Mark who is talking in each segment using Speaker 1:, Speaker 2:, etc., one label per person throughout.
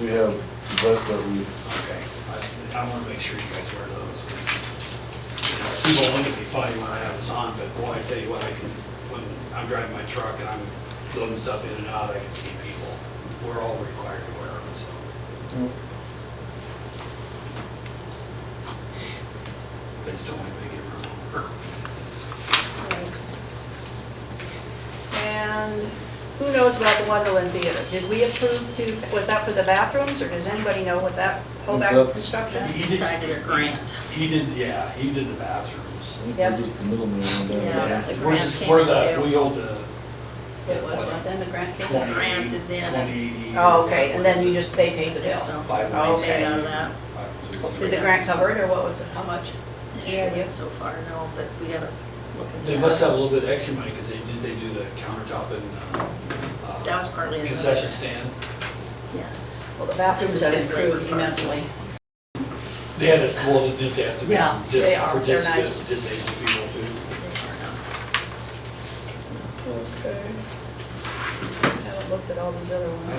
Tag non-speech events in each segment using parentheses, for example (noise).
Speaker 1: We have the best that we,
Speaker 2: Okay, I, I wanna make sure you guys wear those, 'cause, you know, people will look at me funny when I have this on, but boy, I tell you what, I can, when I'm driving my truck and I'm loading stuff in and out, I can see people. We're all required to wear them, so. But it's only big room.
Speaker 3: And who knows about the Wonderland Theater? Did we approve to, was that for the bathrooms, or does anybody know what that whole back
Speaker 1: That's-
Speaker 3: construction? is?
Speaker 2: You did-
Speaker 4: That's tied to the grant.
Speaker 2: He did, yeah, he did the bathrooms.
Speaker 1: we're
Speaker 3: Yep.
Speaker 1: just the middleman on
Speaker 4: Yeah.
Speaker 1: that.
Speaker 4: the
Speaker 2: We're
Speaker 4: grant
Speaker 2: just,
Speaker 4: came
Speaker 2: we're
Speaker 4: in
Speaker 2: the,
Speaker 4: too.
Speaker 2: we hold the.
Speaker 3: It was, not then the grant came
Speaker 4: The
Speaker 3: in?
Speaker 4: grant is in.
Speaker 2: Twenty.
Speaker 3: Oh, okay, and then you just, they paid the bill.
Speaker 4: So,
Speaker 2: Five.
Speaker 3: Oh,
Speaker 2: ways.
Speaker 3: okay.
Speaker 4: Out of that.
Speaker 2: Five
Speaker 3: Did
Speaker 2: ways.
Speaker 3: the grant cover it, or what was it, how much?
Speaker 4: this
Speaker 3: Any idea?
Speaker 4: year so far, no, but we gotta look at that.
Speaker 2: They must have a little bit of extra money, because they, did they do the countertop and, uh,
Speaker 4: That was partly. in the-
Speaker 2: concession stand?
Speaker 4: Yes.
Speaker 3: Well, the bathrooms
Speaker 4: This
Speaker 3: have
Speaker 4: is his labor
Speaker 3: improved
Speaker 4: part.
Speaker 3: immensely.
Speaker 2: They had it, well, did they have to be
Speaker 3: Yeah,
Speaker 2: dis-
Speaker 3: they are.
Speaker 2: for
Speaker 3: They're
Speaker 2: dis-
Speaker 3: nice.
Speaker 2: disabled people too?
Speaker 4: they are now.
Speaker 3: Okay. I haven't looked at all these other ones.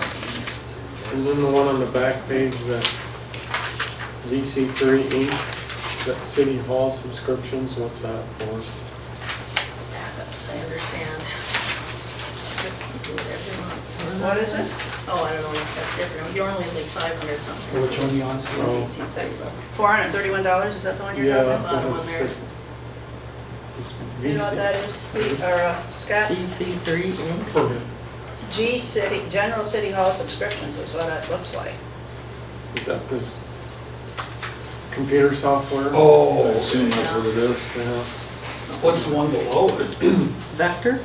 Speaker 5: And then the one on the back page, the VC three Inc., that city hall subscriptions, what's that for?
Speaker 4: It's the backups, I understand. Do it every month.
Speaker 3: What is it?
Speaker 4: Oh, I don't know, unless that's different. Normally it's like five hundred something.
Speaker 2: Which one you on, Steve?
Speaker 5: Oh.
Speaker 4: PC thing, but
Speaker 3: Four hundred and thirty-one dollars, is that the one you're
Speaker 5: Yeah.
Speaker 3: talking
Speaker 4: the
Speaker 3: about?
Speaker 4: bottom one there.
Speaker 3: You know what
Speaker 5: VC
Speaker 3: that is, Pete, or uh, Scott?
Speaker 6: DC three Inc.
Speaker 5: for me.
Speaker 3: It's G City, General City Hall subscriptions is what it looks like.
Speaker 5: Is that this computer software?
Speaker 1: I
Speaker 2: Oh,
Speaker 1: assume that's what it is.
Speaker 5: Yeah.
Speaker 2: what's the one below (clears throat) it?
Speaker 6: Vector?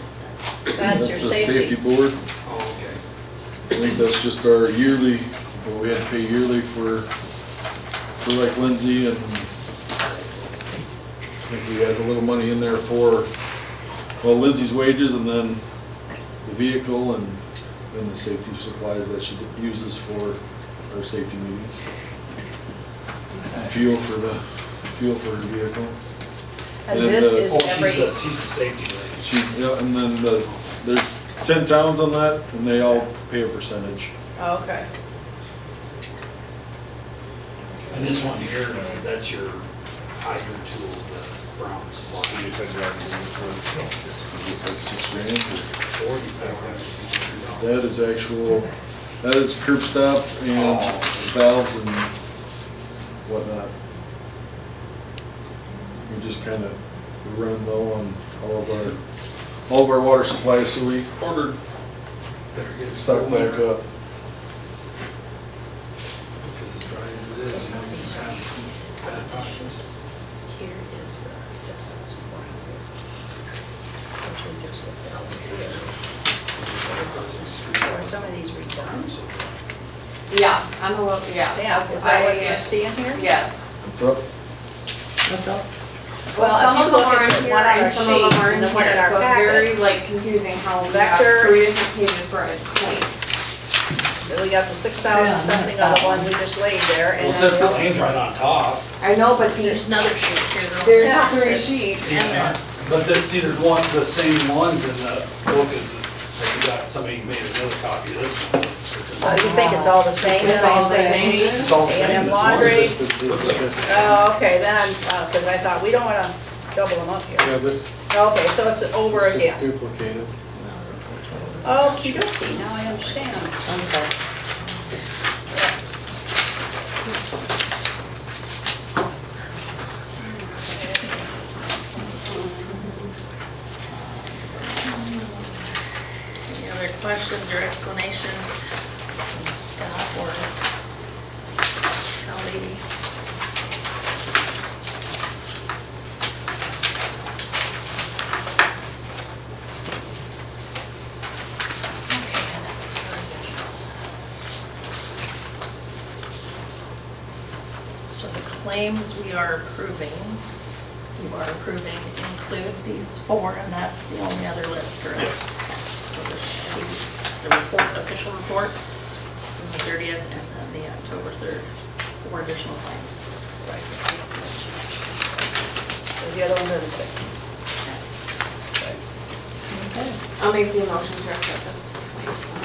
Speaker 3: That's your
Speaker 1: the
Speaker 3: safety.
Speaker 1: board.
Speaker 2: Oh, okay.
Speaker 1: I think that's just our yearly, what we had to pay yearly for, for like Lindsay and I think we had a little money in there for, well, Lindsay's wages and then the vehicle and then the safety supplies that she uses for our safety meetings. And Fuel for the, fuel for her vehicle.
Speaker 3: And
Speaker 1: And
Speaker 3: this
Speaker 1: the-
Speaker 3: is
Speaker 2: Oh,
Speaker 3: every,
Speaker 2: she's the, she's the safety lady.
Speaker 1: She, yeah, and then the, there's ten towns on that and they all pay a percentage.
Speaker 3: oh, okay.
Speaker 2: And this one here, uh, that's your hydrant tool, the brown supply. You said
Speaker 1: It's like six grand or-
Speaker 2: Forty thousand.
Speaker 1: That is actual, that is curb stops and valves and whatnot. We just kind of run low on all of our, all of our water supplies, so we ordered
Speaker 2: Better get it
Speaker 1: stock back up.
Speaker 2: Because as dry as it is, and we have bad times.
Speaker 3: Here is the six thousand four hundred. Which we just looked at over here. Are some of these redone?
Speaker 7: Yeah, I'm a little, yeah.
Speaker 3: Yeah, is that what
Speaker 7: I- uh,
Speaker 3: you're seeing here?
Speaker 7: Yes.
Speaker 1: What's up?
Speaker 6: What's up?
Speaker 3: Well,
Speaker 7: Some
Speaker 3: if you
Speaker 7: of
Speaker 3: look
Speaker 7: them
Speaker 3: at
Speaker 7: are in
Speaker 3: the
Speaker 7: here
Speaker 3: one on our
Speaker 7: and some of
Speaker 3: sheet
Speaker 7: them are
Speaker 3: and
Speaker 7: in
Speaker 3: the
Speaker 7: here,
Speaker 3: one in our
Speaker 7: so it's
Speaker 3: packet,
Speaker 7: very like confusing how we have
Speaker 3: Vector-
Speaker 7: three different pages for a claim.
Speaker 3: that We got the six thousand something on the one we just laid there and
Speaker 2: Well,
Speaker 3: then
Speaker 2: since the
Speaker 3: the rest-
Speaker 2: lane's right on top,
Speaker 7: I know, but
Speaker 4: There's
Speaker 7: these,
Speaker 4: another sheet here though.
Speaker 3: Yeah.
Speaker 7: there's three sheets.
Speaker 2: Yeah, but then, see, there's one, the same ones in the book, is, that you got, somebody made another copy of this one. It's
Speaker 3: So
Speaker 2: a-
Speaker 3: you think it's all the same?
Speaker 7: It's all the same.
Speaker 3: sheet?
Speaker 2: It's all the same,
Speaker 3: And
Speaker 2: it's
Speaker 3: laundry.
Speaker 2: one. Looks like it's the same.
Speaker 3: Oh, okay, then, because I thought, we don't want to double them up here.
Speaker 5: Yeah, this
Speaker 3: Okay, so it's over
Speaker 5: is
Speaker 3: again.
Speaker 5: duplicated.
Speaker 3: Okey dokey, now I understand.
Speaker 6: Okay.
Speaker 4: Any other questions or explanations, Scott or Kelly? So the claims we are approving, you are approving include these four, and that's the only other list, correct?
Speaker 2: Yes.
Speaker 4: So there's the report, official report, from the 30th, and then the October 3rd, four additional claims.
Speaker 3: Because the other ones are the same.
Speaker 7: I'll make the motion to accept the claims.